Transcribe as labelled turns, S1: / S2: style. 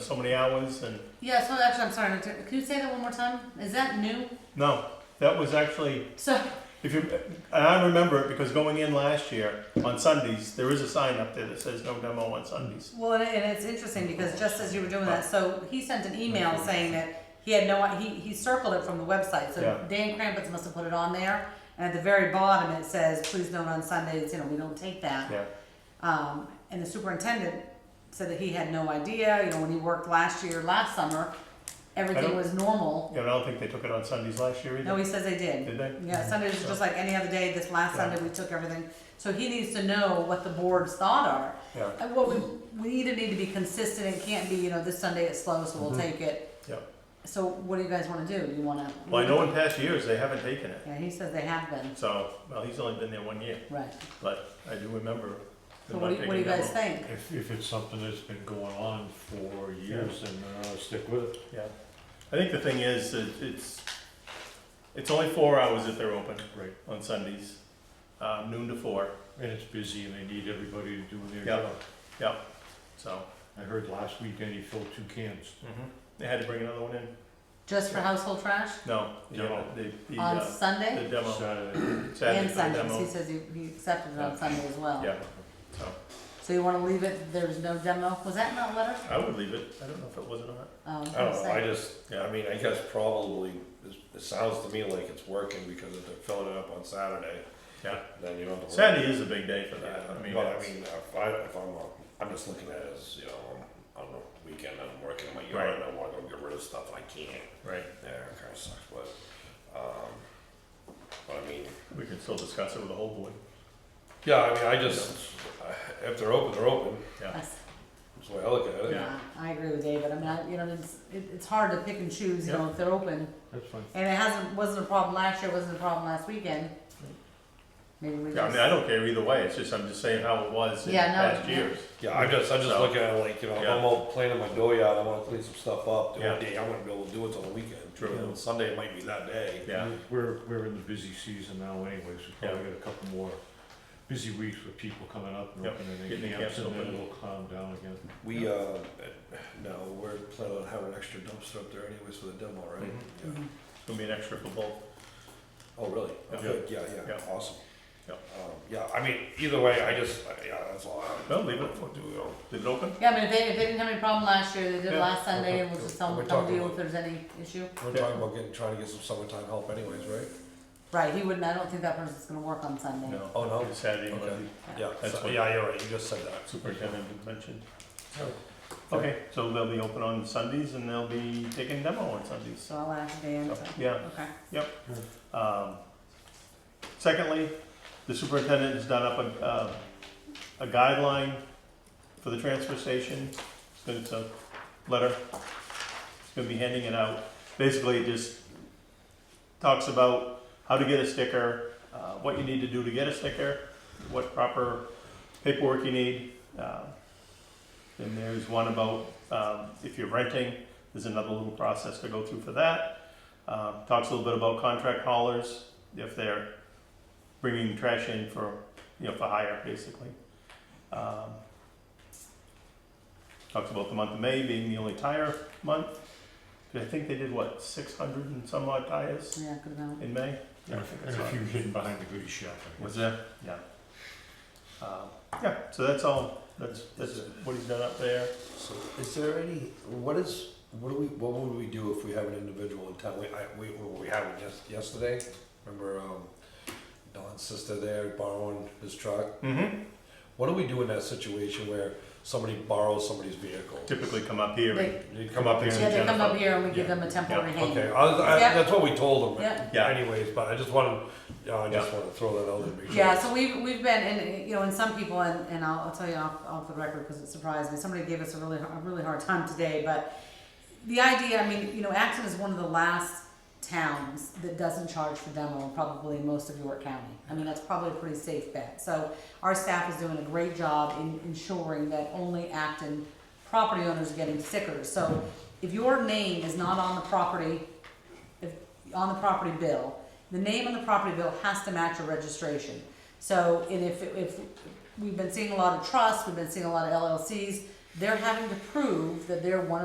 S1: so many hours and,
S2: Yeah, so actually, I'm sorry, Victor, can you say that one more time? Is that new?
S1: no, that was actually,
S2: So,
S1: if you, and I remember it because going in last year on Sundays, there is a sign up there that says no demo on Sundays.
S2: well, and and it's interesting because just as you were doing that, so he sent an email saying that he had no, he, he circled it from the website, so
S1: Yeah.
S2: Dan Crampets must have put it on there. And at the very bottom, it says, please note on Sundays, you know, we don't take that.
S1: Yeah,
S2: Um, and the superintendent said that he had no idea, you know, when he worked last year, last summer, everything
S1: don't-
S2: was normal.
S1: yeah, but I don't think they took it on Sundays last year
S2: No,
S1: either,
S2: he says they did.
S1: did they?
S2: Yeah, Sundays is just like any other day, this last
S1: Yeah.
S2: Sunday, we took everything, so he needs to know what the board's thought are.
S1: Yeah,
S2: And what we, we either need to be consistent, it can't be, you know, this Sunday it's slow, so we'll
S1: Mhm.
S2: take it.
S1: yeah.
S2: So what do you guys wanna do, you wanna?
S1: Well, I know in past years, they haven't taken it.
S2: Yeah, he says they have been,
S1: So, well, he's only been there one year,
S2: right,
S1: but I do remember. them
S2: so
S1: not
S2: what do, you- what do you
S1: taking
S2: guys
S1: demo.
S2: think?
S3: If, if it's something that's been going on for years, then uh, stick with it.
S1: Yeah. I think the thing is, that it's, it's only four hours that they're open
S3: Right.
S1: on Sundays, uh, noon to four,
S3: And it's busy and they need everybody to do their
S1: Yeah.
S3: job.
S1: so.
S3: I heard last weekend he filled two cans.
S1: They had to bring another one in?
S2: Just for household trash,
S1: No, the, uh,
S3: Demo.
S1: the, the,
S2: on
S1: uh, the
S2: Sunday
S1: demo,
S3: Saturday.
S1: Saturday
S2: and
S1: for the
S2: Sundays, he
S1: demo.
S2: says he, he accepted it on Sunday as well.
S1: Yeah, so,
S2: So you wanna leave it, there's no demo, was that in that letter?
S1: I would leave it, I don't know if it was or not,
S2: Um,
S4: Oh, I don't know, I just,
S1: Yeah.
S4: I mean, I guess probably, it, it sounds to me like it's working because if they're filling it up on Saturday,
S1: yeah.
S4: then you don't have to. worry.
S1: Saturday is a big day for that,
S4: Yeah,
S1: I mean,
S4: but I
S1: it's-
S4: mean, if I, if I'm, uh, I'm just looking at it as, you know, I'm, I'm on a weekend, and I'm working in my yard, and I wanna go get rid of stuff, I can't.
S1: right,
S4: Yeah, it kinda sucks, but, um, but I mean,
S1: we can still discuss it with the whole board,
S4: yeah, I mean, I just, I- if they're open, they're open,
S1: yeah.
S2: Us.
S4: that's the way I look at
S1: Yeah.
S4: it.
S2: Yeah, I agree with David, I mean, I, you know, it's, it, it's hard to pick and choose, you know, if they're open,
S3: That's fine.
S2: and it hasn't, wasn't a problem last year, wasn't a problem last weekend. Maybe we
S1: Yeah, I mean, I
S2: just,
S1: don't care either way, it's just, I'm just saying how it was in
S2: Yeah, no,
S1: past
S2: yeah.
S1: years.
S4: Yeah, I'm just, I'm just
S1: So-
S4: looking at it like, you know, if
S1: Yeah.
S4: I'm out playing in my dooryard, I wanna clean some stuff up, the
S1: Yeah.
S4: whole day, I'm gonna be able to do it till the weekend.
S1: True.
S4: You know, Sunday it might be that day.
S1: Yeah,
S3: We're, we're in the busy season now anyways, we
S1: Yeah.
S3: probably got a couple more busy weeks with people coming up and
S1: Yep,
S3: opening
S1: getting
S3: their
S1: the
S3: camps
S1: camps
S3: and then
S1: open.
S3: it'll calm down again.
S4: We, uh, no, we're planning on having an extra dumpster up there anyways for the demo, right?
S2: Mhm.
S4: Yeah.
S1: it's gonna be an extra for both,
S4: Oh, really?
S1: Yeah.
S4: Okay, yeah, yeah,
S1: Yeah.
S4: awesome.
S1: Yeah.
S4: Um, yeah, I mean, either way, I just, I- yeah, that's all I.
S1: No, leave it.
S4: What do we all-
S1: leave it open?
S2: yeah, I mean, if they, if they didn't have any problem last year, they did
S1: Yeah.
S2: last Sunday, and we'll just tell
S4: We're
S2: them, come
S4: talking
S2: deal if
S4: about-
S2: there's any issue.
S4: We're talking about getting, trying to get some summertime help anyways, right?
S2: Right, he wouldn't, I don't think that person's gonna work on Sunday.
S1: No.
S4: Oh, no?
S1: It's Saturday,
S4: Okay.
S1: Monday,
S4: Yeah,
S1: That's
S4: so-
S1: what-
S4: yeah, you're right, you just said that.
S1: superintendent had mentioned.
S4: Yeah.
S1: Okay, so they'll be open on Sundays and they'll be taking demo on Sundays.
S2: So I'll ask Dan,
S1: So,
S2: so,
S1: Yeah,
S2: okay,
S1: um, secondly, the superintendent has done up a, uh, a guideline for the transfer station. It's gonna- It's a letter, it's gonna be handing it out. Basically, it just talks about how to get a sticker, uh, what you need to do to get a sticker, what proper paperwork you need. Um, Then there's one about, um, if you're renting, there's another little process to go through for that. Um, talks a little bit about contract haulers, if they're bringing trash in for, you know, for hire, basically. Um, Talks about the month of May being the only tire month. I think they did, what, six hundred and some odd tires?
S2: yeah, good amount.
S1: In May?
S3: And
S1: I
S3: a-
S1: think
S3: and
S1: that's
S3: a
S1: right.
S3: few hidden behind the goodie shelf. I guess.
S1: Was there? Yeah. Um, Yeah, so that's all, that's, that's what he's done up there.
S4: So is there any, what is, what do we, what would we do if we have an individual in town? We, I, we, we had one yes, yesterday, remember, um, Don's sister there borrowing his truck?
S1: Mm-hmm.
S4: What do we do in that situation where somebody borrows somebody's vehicle?
S1: Typically come up here and,
S2: They,
S4: You come up here
S2: yeah,
S4: and.
S2: they come up
S1: Jennifer.
S2: here and we give
S1: Yeah.
S2: them a temporary hang.
S4: Okay, I, I,
S2: Yeah.
S4: that's what we told them
S2: Yeah.
S1: Yeah.
S4: anyways, but I just wanted, yeah, I just wanted to throw that out there. to make sure.
S2: Yeah, so we've, we've been, and, uh, you know, and some people, and, and I'll, I'll tell you off, off the record, cause it surprised me, somebody gave us a really, a really hard time today, but the idea, I mean, you know, Acton is one of the last towns that doesn't charge for demo, probably in most of York County. I mean, that's probably a pretty safe bet, so our staff is doing a great job in ensuring that only Acton property owners are getting stickers, so if your name is not on the property, if, on the property bill, the name on the property bill has to match your registration. So, and if, if, we've been seeing a lot of trusts, we've been seeing a lot of LLCs, they're having to prove that they're one of